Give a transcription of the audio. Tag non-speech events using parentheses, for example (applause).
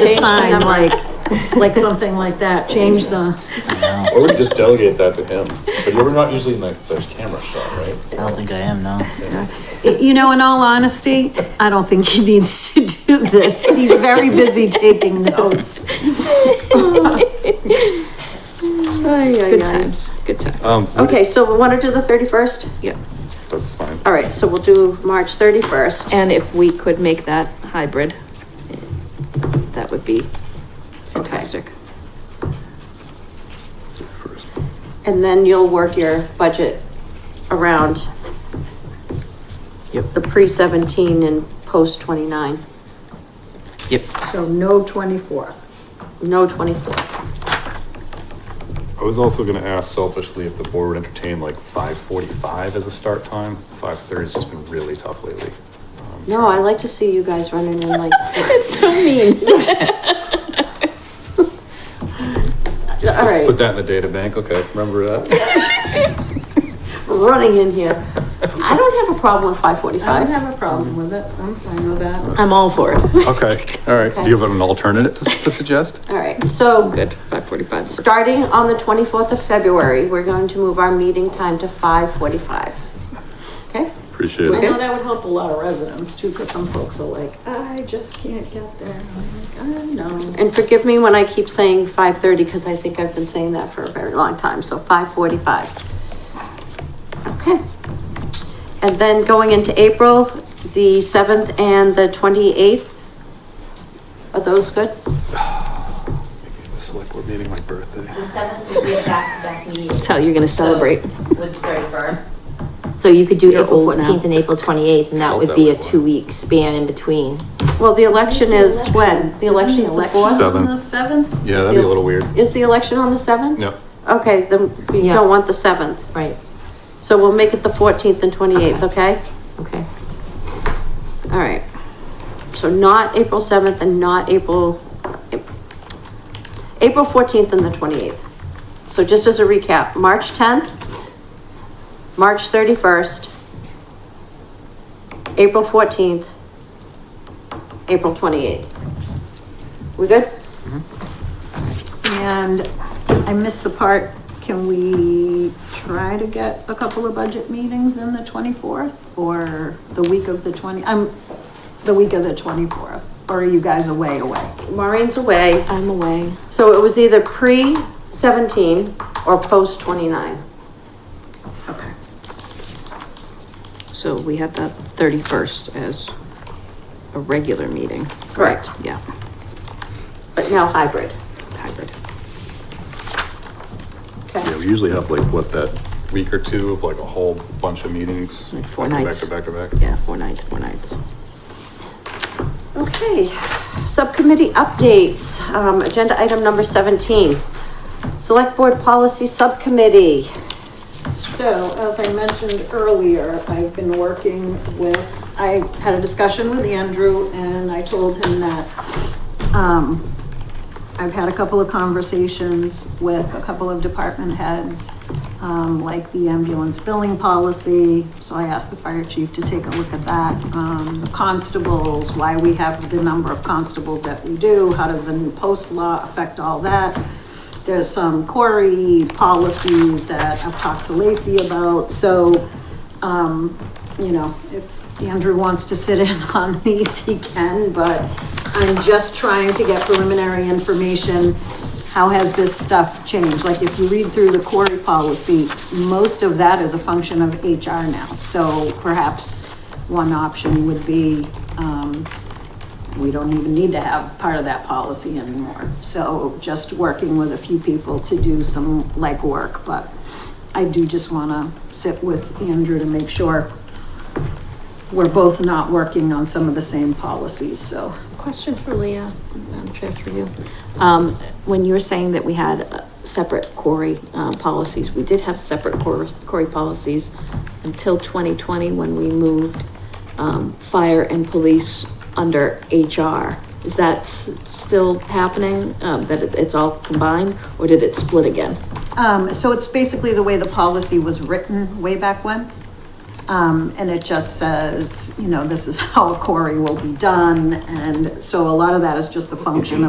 the sign, like, like something like that, change the, Or we could just delegate that to him, but you're not usually in like the camera shot, I right? don't think I am, no. you know, in all honesty, I don't think he needs to do this. He's very busy taking notes. Good times, good times. Um, Okay, so we want to do the thirty-first? Yeah. That's fine. All right, so we'll do March thirty-first. And if we could make that hybrid, that would be fantastic. And then you'll work your budget around Yep. the pre-seventeen and post-twenty-nine, Yep. So no twenty-fourth. no twenty-four. I was also gonna ask selfishly if the board would entertain like five forty-five as a start time. Five thirty's just been really tough lately. Um, No, I like to see you guys running in (laughs) like, It's so mean. (laughs) all right, Put that in the data bank, okay, remember that? running in here. I don't have a problem with five I don't forty-five. have a problem with it. I'm fine with that. I'm all for it. Okay, all right, do you have an alternative to to suggest? All right, so (laughs) Good, five forty-five. starting on the twenty-fourth of February, we're going to move our meeting time to five forty-five. Okay? Appreciate I it. know that would help a lot of residents too, because some folks are like, I just can't get there. I'm like, I know. And forgive me when I keep saying five thirty, because I think I've been saying that for a very long time, so five forty-five. Okay. And then going into April, the seventh and the twenty-eighth. Are those good? Making The select board meeting my birthday. The seventh would be a back-to-back meeting. That's how Oh, you're gonna So, celebrate. With the thirty-first. So you could do You're April old now. fourteenth and April twenty-eighth, and that called would that be a one. two-week span in between. Well, the election is when? The election is the fourth? On the seventh? Yeah, that'd be a little weird. Is the election on the seventh? Yep. Okay, then we Yeah. don't want the seventh, Right. so we'll make it the fourteenth and twenty-eighth, okay? Okay. All right. So not April seventh and not April, April fourteenth and the twenty-eighth. So just as a recap, March tenth, March thirty-first, April fourteenth, April twenty-eighth. We good? And I missed the part, can we try to get a couple of budget meetings in the twenty-fourth? Or the week of the twenty, I'm, the week of the twenty-fourth, or are you guys away, away? Maureen's away, I'm away. so it was either pre seventeen or post twenty-nine. Okay. So we had the thirty-first as a regular meeting. Correct. Yeah, But now hybrid. hybrid. Yeah, Okay. we usually have like, what, that week or two of like a whole bunch of meetings? Like four back to nights. Back to back to back. Yeah, four nights, four nights. Okay, subcommittee updates, um, agenda item number seventeen. Select Board Policy Subcommittee. So, as I mentioned earlier, I've been working with, I had a discussion with Andrew and I told him that, um, I've had a couple of conversations with a couple of department heads, um, like the ambulance billing policy. So I asked the fire chief to take a look at that, um, the constables, why we have the number of constables that we do, how does the new post law affect all that? There's some quarry policies that I've talked to Lacey about, so, um, you know, if Andrew wants to sit in (laughs) on these, he can, but I'm just trying to get preliminary information. How has this stuff changed? Like, if you read through the quarry policy, most of that is a function of HR now. So perhaps one option would be, um, we don't even need to have part of that policy anymore. So just working with a few people to do some legwork, but I do just wanna sit with Andrew to make sure we're both not working on some of the same policies, so. Question for Leah, Madam Chair, through you. Um, when you were saying that we had uh, separate quarry, uh, policies, we did have separate quarry, quarry policies until twenty twenty, when we moved, um, fire and police under HR. Is that s- still happening, um, that it- it's all combined, or did it split again? Um, so it's basically the way the policy was written way back when. Um, and it just (laughs) says, you know, this is how a query will be done, and so a lot of that is just the function of